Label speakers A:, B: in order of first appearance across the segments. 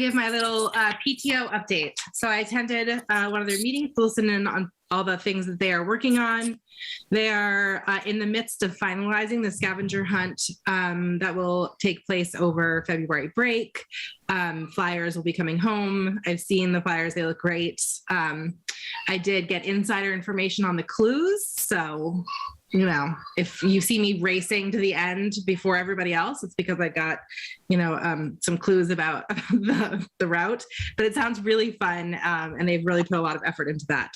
A: give my little uh, PTO update. So I attended uh, one of their meetings, to listen in on all the things that they are working on. They are uh, in the midst of finalizing the scavenger hunt um, that will take place over February break. Um, flyers will be coming home. I've seen the flyers, they look great. Um, I did get insider information on the clues. So, you know, if you see me racing to the end before everybody else, it's because I got you know um, some clues about the, the route but it sounds really fun um, and they've really put a lot of effort into that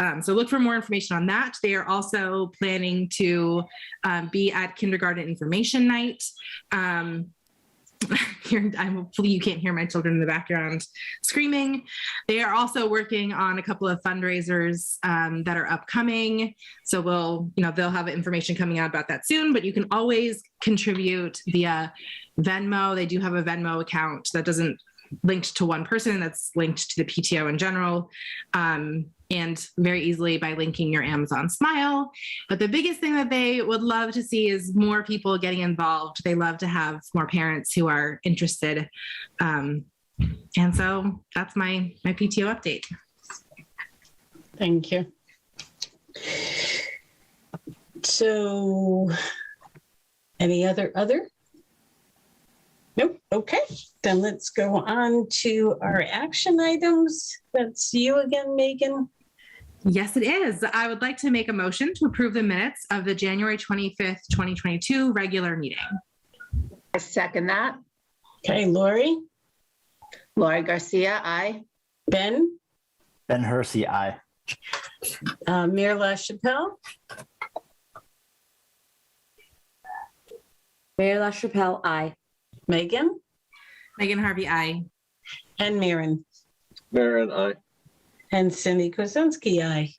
A: um, so look for more information on that they are also planning to um, be at kindergarten information night um, here, I'm, hopefully you can't hear my children in the background screaming. They are also working on a couple of fundraisers um, that are upcoming. So we'll, you know, they'll have information coming out about that soon. But you can always contribute via Venmo. They do have a Venmo account that doesn't linked to one person. That's linked to the PTO in general. Um, and very easily by linking your Amazon Smile but the biggest thing that they would love to see is more people getting involved. They love to have more parents who are interested. Um, and so that's my my PTO update.
B: Thank you. So, any other, other? Nope, okay, then let's go on to our action items. That's you again, Megan.
A: Yes, it is. I would like to make a motion to approve the minutes of the January 25th, 2022 regular meeting.
C: I second that.
B: Okay, Lori,
C: Lori Garcia, aye.
B: Ben,
D: Ben Hersey, aye.
B: uh, Mayor LaChapelle,
E: Mayor LaChapelle, aye.
B: Megan,
A: Megan Harvey, I.
B: and Maren,
F: Marin, aye.
B: and Cindy Kuzensky, aye.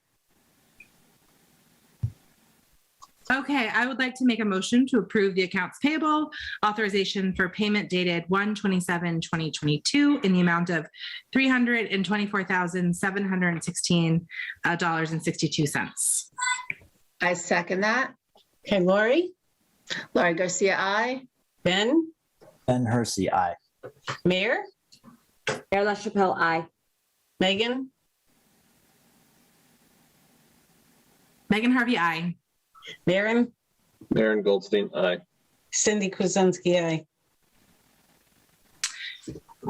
A: Okay, I would like to make a motion to approve the accounts payable authorization for payment dated 1/27/2022 in the amount of uh, $324,716.62.
C: I second that.
B: Okay, Lori,
C: Lori Garcia, aye.
B: Ben,
D: Ben Hersey, aye.
B: Mayor,
E: Mayor LaChapelle, aye.
B: Megan,
A: Megan Harvey, I.
B: Maren,
F: Marin Goldstein, aye.
B: Cindy Kuzensky, aye.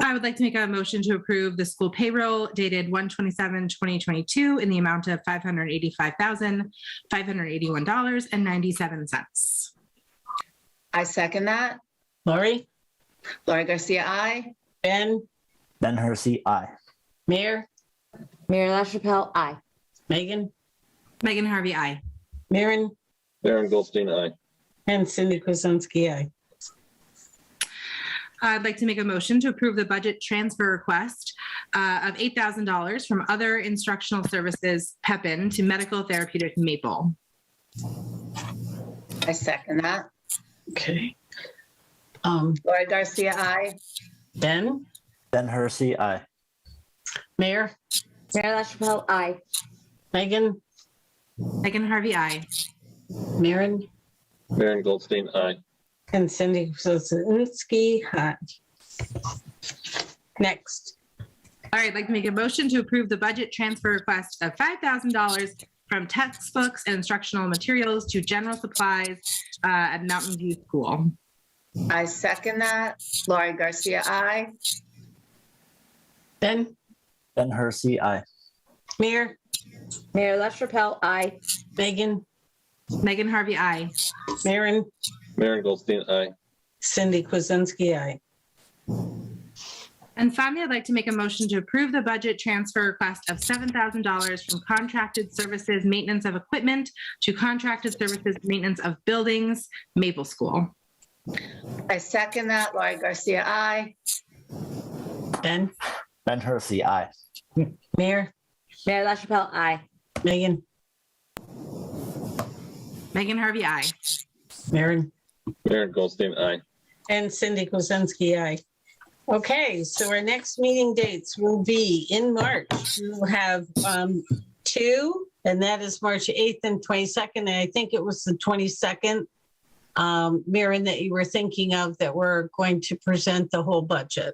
A: I would like to make a motion to approve the school payroll dated 1/27/2022 in the amount of $585,581.97.
C: I second that.
B: Lori,
C: Lori Garcia, aye.
B: Ben,
D: Ben Hersey, aye.
B: Mayor,
E: Mayor LaChapelle, aye.
B: Megan,
A: Megan Harvey, I.
B: Maren,
F: Marin Goldstein, aye.
B: and Cindy Kuzensky, aye.
A: I'd like to make a motion to approve the budget transfer request uh, of $8,000 from other instructional services, Pepin, to medical therapeutic Maple.
C: I second that.
B: Okay. Um,
C: Lori Garcia, aye.
B: Ben,
D: Ben Hersey, aye.
B: Mayor,
E: Mayor LaChapelle, aye.
B: Megan,
A: Megan Harvey, I.
B: Maren,
F: Marin Goldstein, aye.
B: and Cindy Kuzensky, aye. Next,
A: All right, I'd like to make a motion to approve the budget transfer request of $5,000 from textbooks and instructional materials to general supplies uh, at Mountain View School.
C: I second that. Lori Garcia, aye.
B: Ben,
D: Ben Hersey, aye.
B: Mayor,
E: Mayor LaChapelle, aye.
B: Megan,
A: Megan Harvey, I.
B: Maren,
F: Marin Goldstein, aye.
B: Cindy Kuzensky, aye.
A: And finally, I'd like to make a motion to approve the budget transfer request of $7,000 from contracted services maintenance of equipment to contracted services maintenance of buildings, Maple School.
C: I second that. Lori Garcia, aye.
B: Ben,
D: Ben Hersey, aye.
B: Mayor,
E: Mayor LaChapelle, aye.
B: Megan,
A: Megan Harvey, I.
B: Maren,
F: Marin Goldstein, aye.
B: And Cindy Kuzensky, aye. Okay, so our next meeting dates will be in March. We'll have um, two, and that is March 8th and 22nd. And I think it was the 22nd, um, Maren, that you were thinking of that we're going to present the whole budget.